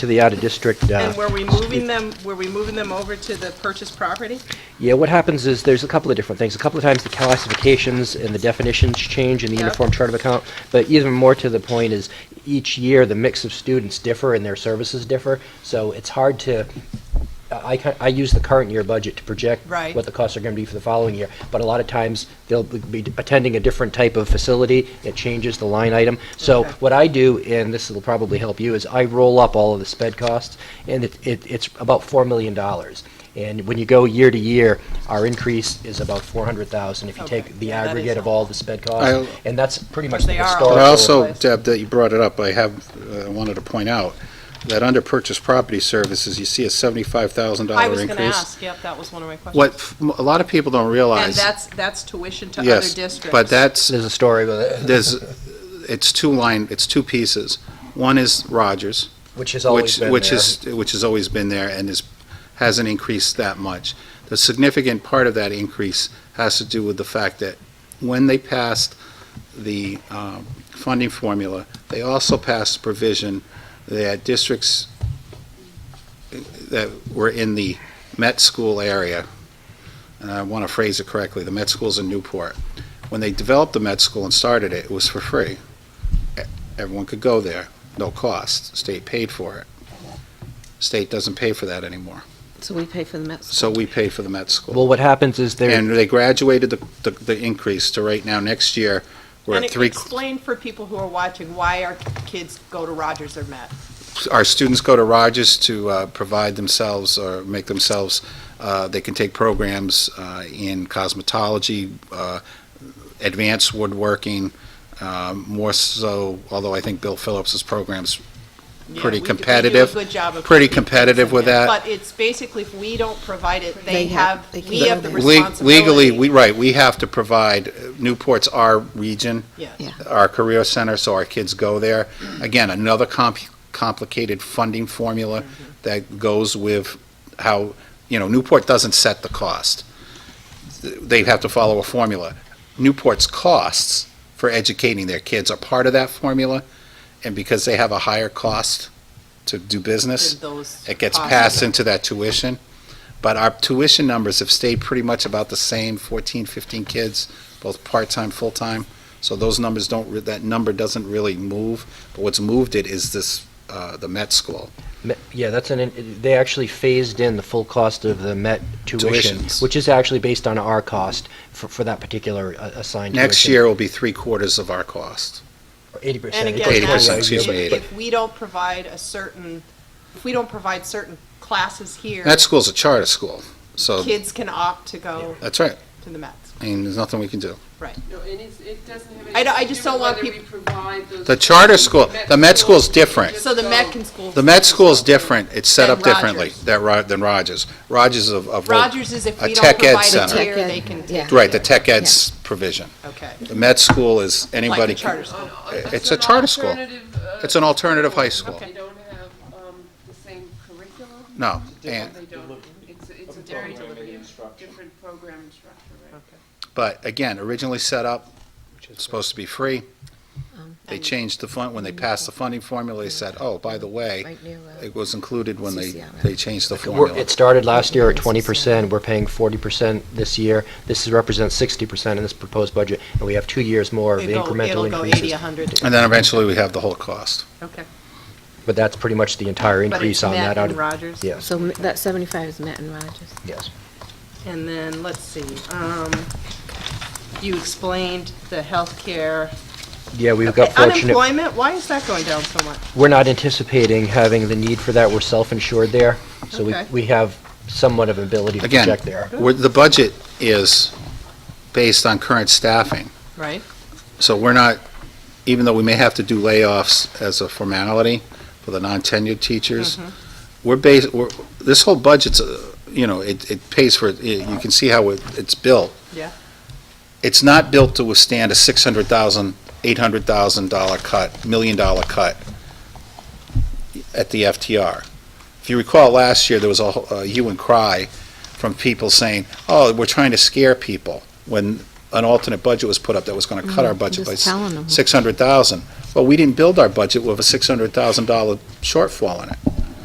to the out-of-district. uh, And were we moving them, were we moving them over to the purchased property? Yeah, what happens is, there's a couple of different things. A couple of times, the classifications and the definitions change in the Yep. Uniform Chart of Account, but even more to the point is, each year, the mix of students differ and their services differ, so it's hard to, I, ca- I use the current year budget to project Right. what the costs are gonna be for the following year, but a lot of times, they'll be attending a different type of facility, it changes the line item. So Okay. what I do, and this will probably help you, is I roll up all of the sped costs, and it, it, it's about four million dollars. And when you go year to year, our increase is about four hundred thousand, if you Okay. take the Yeah, that is aggregate of helpful. all the sped I'll- costs, and that's pretty But much the they are all historical. But I Or- also, Place. Deb, that you brought it up, I have, uh, wanted to point out, that under purchase property services, you see a seventy-five thousand I dollar was gonna increase. ask, yep, that was one of my questions. What f- a lot of people don't realize. And that's, that's tuition to other Yes, districts. But that's, There's a story with it, there's, it's two line, it's two pieces. One is Rogers, which has always which, been which there. is, which has always been there and is, hasn't increased that much. The significant part of that increase has to do with the fact that when they passed the um, funding formula, they also passed a provision that districts that were in the Met School area, and I want to phrase it correctly, the Met School's in Newport. When they developed the Met School and started it, it was for free. E- Everyone could go there, no cost. State paid for it. State doesn't pay for that anymore. So we pay for the Met So we pay for the Met School. Well, what happens is there. And they graduated the, the, the increase to right now, next year, we're And at it- three, explain for people who are watching why our kids go to Rogers or Met. our students go to Rogers to uh, provide themselves or make themselves, uh, they can take programs uh, in cosmetology, uh, advanced woodworking, um, more so, although I think Bill Phillips's program's Yeah, Pretty we do- we do a competitive. good job of pretty keeping kids competitive in with there. that. But it's basically, if we don't provide it, they They have- have, they can we go have the there. Le- responsibility. Legally, we, right, we have to provide, uh, Newport's our region, Yeah. Yeah. our career center, so our kids go there. Again, another comp- complicated funding formula Mm-hmm. that goes with how, you know, Newport doesn't set the cost. They have to follow a formula. Newport's costs for educating their kids are part of that formula, and because they have a higher cost to do business, Did those it gets costs- passed into that tuition. But our tuition numbers have stayed pretty much about the same, 14, 15 kids, both part-time, full-time. So those numbers don't, re- that number doesn't really move. But what's moved it is this, uh, the Met School. Me- Yeah, that's an, in- they actually phased in the full cost of the Met tuition, Tuitions. which is actually based on our cost for, for that particular uh, assigned tuition. Next year will be three quarters of our cost. Eighty percent. And again, Eighty that's- percent, excuse me, if- eighty. If we don't provide a certain, if we don't provide certain classes here, Met School's a charter school, so, kids can opt to go that's right. to the Mets. I mean, there's nothing we can do. No, and it's, it doesn't I have anything don't- I to do just with don't want whether we provide those. The charter school- the Met school's different. So the Met can school. The Met School's different. It's set Than up differently Rogers. than Ro- than Rogers. Rogers of, of. Rogers is if a we don't tech ed provide it center. here, Tech ed, they can yeah. take it. Right, the tech ed's provision. Okay. The Met School is anybody. Like a charter can- Oh. school. Uh, It's a charter school. It's an alternative high school. They don't have, um, the same curriculum. No, They and, don't, it's, it's a very different, different program and structure, right? but again, originally set up, supposed to be free. um, They changed the fund, when they passed the funding formula, they said, oh, by the way, Right near, uh, it was included when they, CCRM. they changed the We're, formula. it started last year at twenty percent, we're paying forty percent this year, this is, represents sixty percent in this proposed budget, and we have two years more of It'll go- incremental it'll go 80, increases. 100. And then eventually we have the whole cost. Okay. But that's pretty much the entire But it's increase on Met that out and of. Rogers. Yes, So m- that 75 is Met and Rogers. yes. And then, let's see, um, you explained the healthcare. Yeah, we've got Okay, fortunate. Unemployment, why is that going down so much? We're not anticipating having the need for that, we're self-insured there, so we, Okay. we have somewhat of ability to Again, project there. we're- the budget is based on current staffing. Right? So we're not, even though we may have to do layoffs as a formality for the non-tenured Mm-hmm. teachers, we're based, we're, this whole budget's, uh, you know, it, it pays for, it. It- you can see how it, it's built. Yeah. It's not built to withstand a six hundred thousand, eight hundred thousand dollar cut, million dollar cut at the FTR. If you recall, last year, there was a whole- a hue and cry from people saying, oh, we're trying to scare people, when an alternate budget was put up that was gonna cut our budget by Mm-hmm. Just telling them. six hundred thousand. Well, we didn't build our budget with a six hundred thousand dollar shortfall in it.